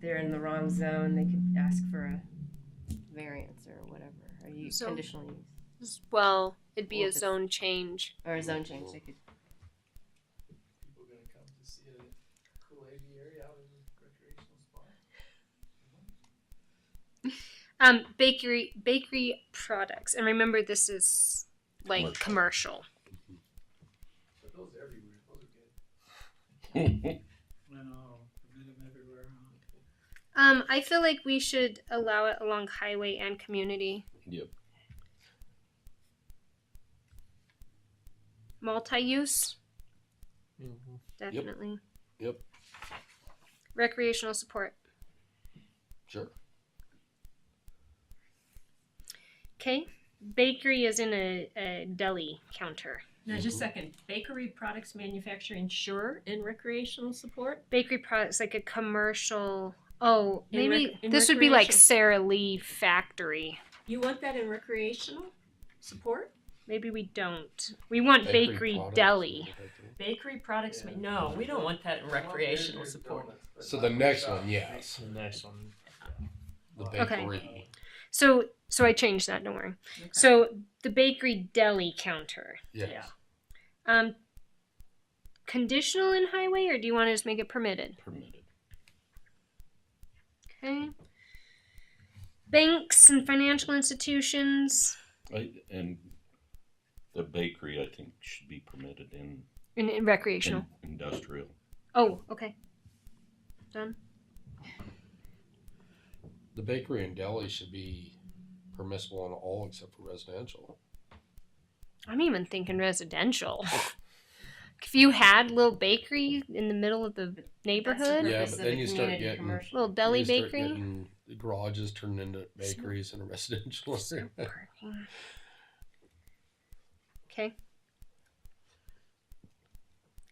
they're in the wrong zone, they could ask for a variance or whatever, or use So- conditional use, As well, it'd be Well, a if it's- zone change. or a zone change, they could, People gonna come to see a cool aviary out in the recreational spot. Um, bakery bakery products, and remember this is like commercial. But those everywhere, those are good. I know, I've um, met him everywhere, huh? Um, I feel like we should allow it along highway and community. Yep. Multi-use, definitely. Yep. Recreational support. Sure. Okay. Bakery is in a, a deli counter. Now, just a second. Bakery products manufacturer insure and recreational support? Bakery products like a commercial. Oh, In rec- maybe in this would be like recreation. Sara Lee Factory. You want that in recreational support? Maybe we don't. We want bakery, products, deli. something like that. Bakery products, ma- no, we don't want that in I want recreational Barry's support. Donuts, but So not the in next shop. one, yes. The next one. The Okay. bakery. So so I changed that, don't worry. Okay. So the bakery deli counter. Yes. Yeah. Um conditional in highway or do you want to just make it permitted? Permitted. Okay. Banks and financial institutions I, and the bakery, I think, should be permitted in, and, and recreational. in industrial. Oh, okay. The bakery and deli should be permissible in all except for residential. I'm even thinking residential. if you had little bakery in the middle of the neighborhood, Purpose Yeah, of but the then you start community getting commercial. little deli You start bakery. getting The garages turned into bakeries in a residential area. Okay.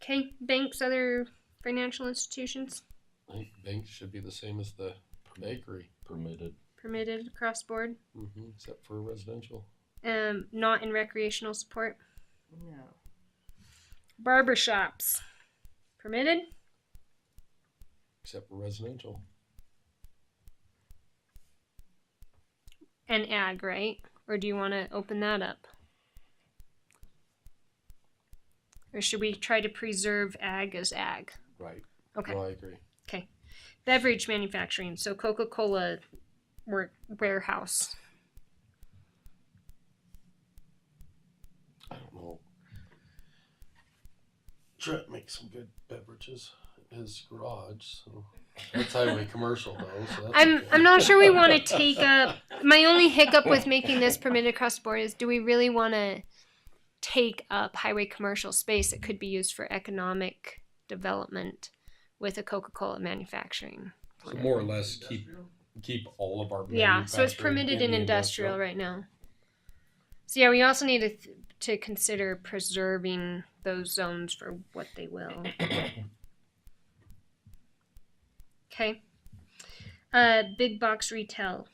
Okay, banks, other financial institutions I think banks should be the same as the bakery, Permitted. permitted across board. hmm except for residential. Um, not in recreational support. no. Barber shops, permitted. Except for residential. And ag, right? Or do you want to open that up? Or should we try to preserve ag as ag? Right. Okay. No, I agree. Beverage manufacturing, so Coca Cola work warehouse. I don't know. Trent makes some good beverages in his garage. So. That's highway commercial though. So that's I'm okay. I'm not sure we want to take up. My only hiccup with making this permitted across the board is: do we really want to take up highway commercial space that could be used for economic development with a Coca Cola manufacturing? So more or less keep Industrial? keep all of our Yeah, so it's manufacturing permitted in the industrial right now. So yeah, we also need to th- to consider preserving those zones for what they will. Okay. Uh, big box retail.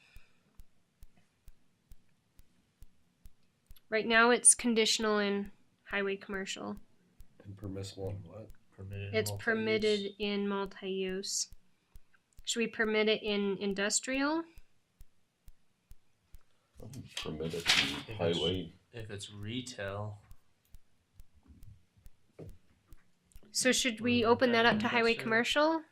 Right now, it's conditional in highway commercial. and permissible in what? Permitted. It's multi-use. permitted in multi-use. Should we permit it in industrial? Oh, Permitted in highway. If it's retail. So should we Wouldn't open that that up be to highway industrial? commercial?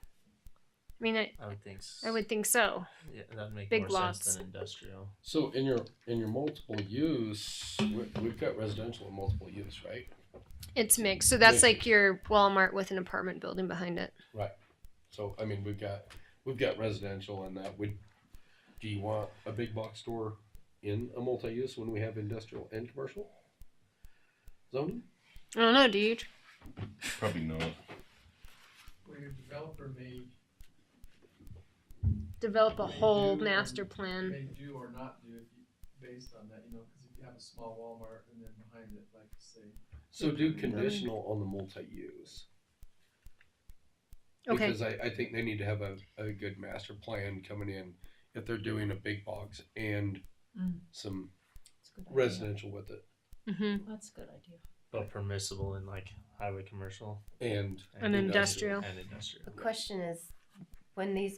I mean, I, I would think. s- I would think so. Yeah, that'd make Big more lots. sense than industrial. So in your in your multiple use, we- we've got residential and multiple use, right? It's mixed. So that's Mixed. like your Walmart with an apartment building behind it. So I mean, we've got we've got residential and that would. Do you want a big box store in a multi-use when we have industrial and commercial zoning? I don't know, dude. Probably not. Where your developer may, Develop a They whole do. master plan. may do or not do if you, based on that, you know, cause if you have a small Walmart and then behind it, like say, So do conditional on the multi-use. Okay. Because I, I think they need to have a, a good master plan coming in if they're doing a big box and Mm. some That's a good idea. residential with it Mm-hmm. That's a good idea. But permissible in like highway commercial and An industrial. and industrial. The question is, when these